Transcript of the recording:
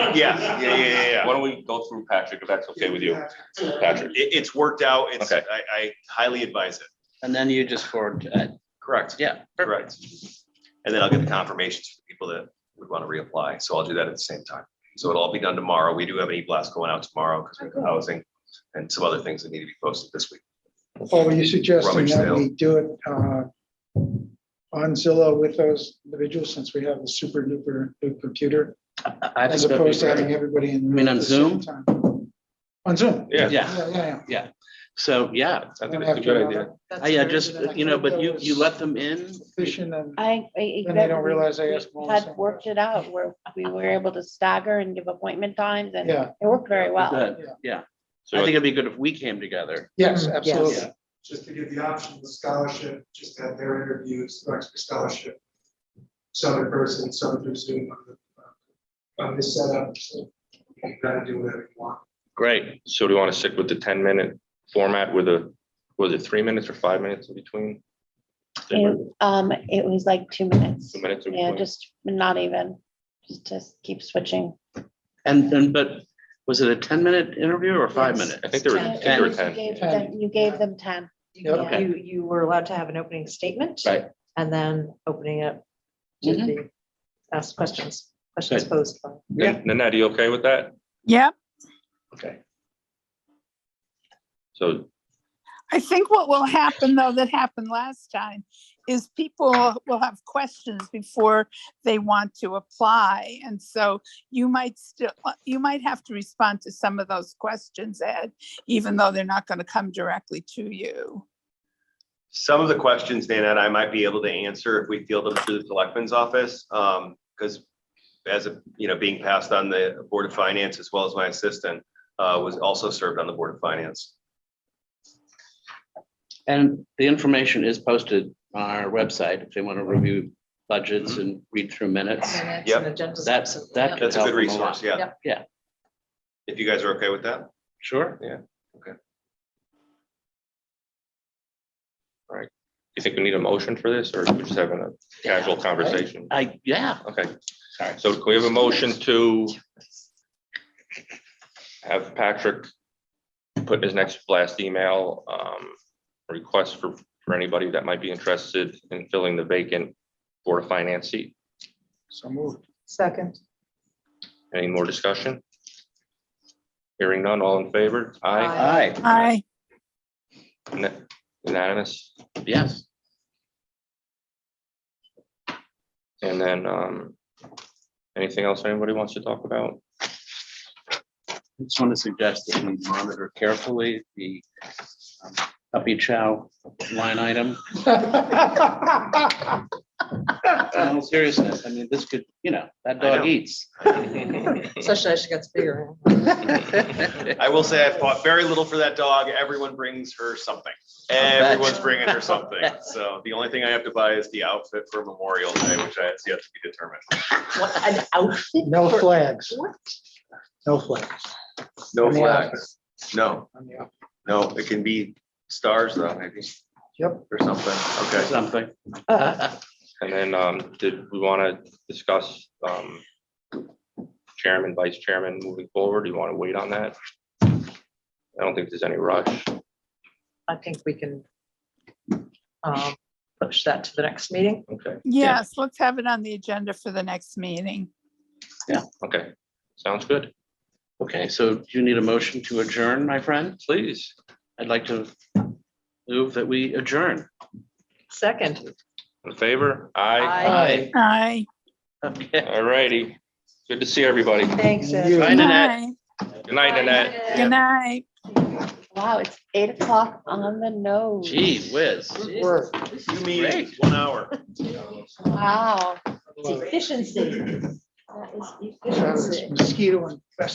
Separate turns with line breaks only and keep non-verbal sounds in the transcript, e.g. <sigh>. Yeah, yeah, yeah, yeah, yeah.
Why don't we go through Patrick, if that's okay with you, Patrick?
It, it's worked out. It's, I,
Okay.
I highly advise it.
And then you just forward, uh,
Correct.
yeah. perfect.
Correct. And then I'll get the confirmations for people that would want to reapply. So I'll do that at the same time. So it'll all be done tomorrow. We do have an e-blast going out tomorrow because we have housing and some other things that need to be posted this week.
Or were you suggesting
Rubbish
that
sale.
we do it uh, on Zillow with those individuals since we have the super duper new computer?
I- I think
As
that'd be
opposed to
great.
having everybody in. the
You mean
room
on
at the same
Zoom?
time. On Zoom.
Yeah,
Yeah, yeah, yeah.
so, yeah,
I
You
think
don't
that's a
have to
good
have
idea.
that
I Oh, yeah, just, you know, but you, you let them in.
Fishing and,
Uh,
I. I-
Then they don't realize they
we
asked more
Had
sometimes.
worked it out where we were able to stagger and give appointment times and it
yeah,
worked very well.
Good,
Yeah.
yeah. I think
So
it'd be good if we came together.
yes,
Mm,
absolutely.
yes.
just to give the option of scholarship, just to have their interviews, like for scholarship. Some in person, some through Zoom on the, uh, on this setup, so you gotta do whatever you want.
Great.
so do you want to stick with the ten minute format with a, was it three minutes or five minutes in between? Two
And, Um, it was like two minutes.
minutes in
Yeah,
between?
just not even, just to keep switching.
And, and, but was it a ten minute interview or five
Yes.
minute?
I think there were, I think there were
You
ten.
gave
yeah.
them- You gave them ten.
You,
Yep.
you- you were allowed to have an opening statement.
Right. Mm-hmm.
And then opening up to the, ask questions, questions
Good.
posed. by-
Nan- Nanette, you okay with that?
Yep.
Okay.
So,
I think what will happen though, that happened last time, is people will have questions before they want to apply. And so you might still, you might have to respond to some of those questions, Ed, even though they're not going to come directly to you.
Some of the questions, Dana, and I might be able to answer if we field them through the selectman's office, um, because as, a you know, being passed on the Board of Finance as well as my assistant, uh, was also served on the Board of Finance.
And the information is posted on our website if they want to review budgets
Mm-hmm.
and read through minutes.
Minutes
Yep.
and agendas.
That's- that could
That's a
help
good
them a lot.
resource, yeah.
Yep.
Yeah.
If you guys are okay with that?
Sure.
you think we need a motion for this, or are we just having a casual conversation?
I, yeah.
Okay,
Sorry.
so can we have a motion to have Patrick put in his next blast email, um, request for, for anybody that might be interested in filling the vacant Board of Finance seat?
So moved.
<laughs>
Second.
Any more discussion? Hearing none, all in favor? Aye.
Aye,
I,
Na- Unanimous?
yes.
And then, um, anything else anybody wants to talk about?
I Just want to suggest that we monitor carefully the um, puppy chow line
<laughs>
item. In all seriousness, I mean, this could, you know, that
know.
dog eats.
Especially as she gets bigger.
I will say I fought very little for that dog. Everyone brings her something. Everyone's bringing her <laughs> something. So the only thing I have to buy is the outfit for Memorial Day, which I has yet to be determined.
What an outfit.
No
for-
flags,
What?
no flags.
No
On the
flags. No,
on the up.
no, it can be stars though, maybe,
Yep,
or something. Okay.
Something.
<laughs>
And then, um, did we want to discuss, um, chairman, vice chairman moving forward? Do you want to wait on that? I don't think there's any rush.
I think we can um, push that to the next meeting.
Okay,
yes, let's have it on the agenda for the next meeting.
okay, sounds good.
Okay, so do you need a motion to adjourn, my friend?
Please,
I'd like to move that we adjourn.
Second.
in favor? Aye.
Aye.
I.
Okay.
All righty. Good to see everybody.
Thanks, Ed.
You-
Bye, Nanette.
Good night, Nanette.
Good night.
Wow, it's eight o'clock on the nose.
Gee whiz.
good work.
You mean
Great.
one hour.
Wow.
Efficiency. That is
That was
efficiency.
Mosquito infested.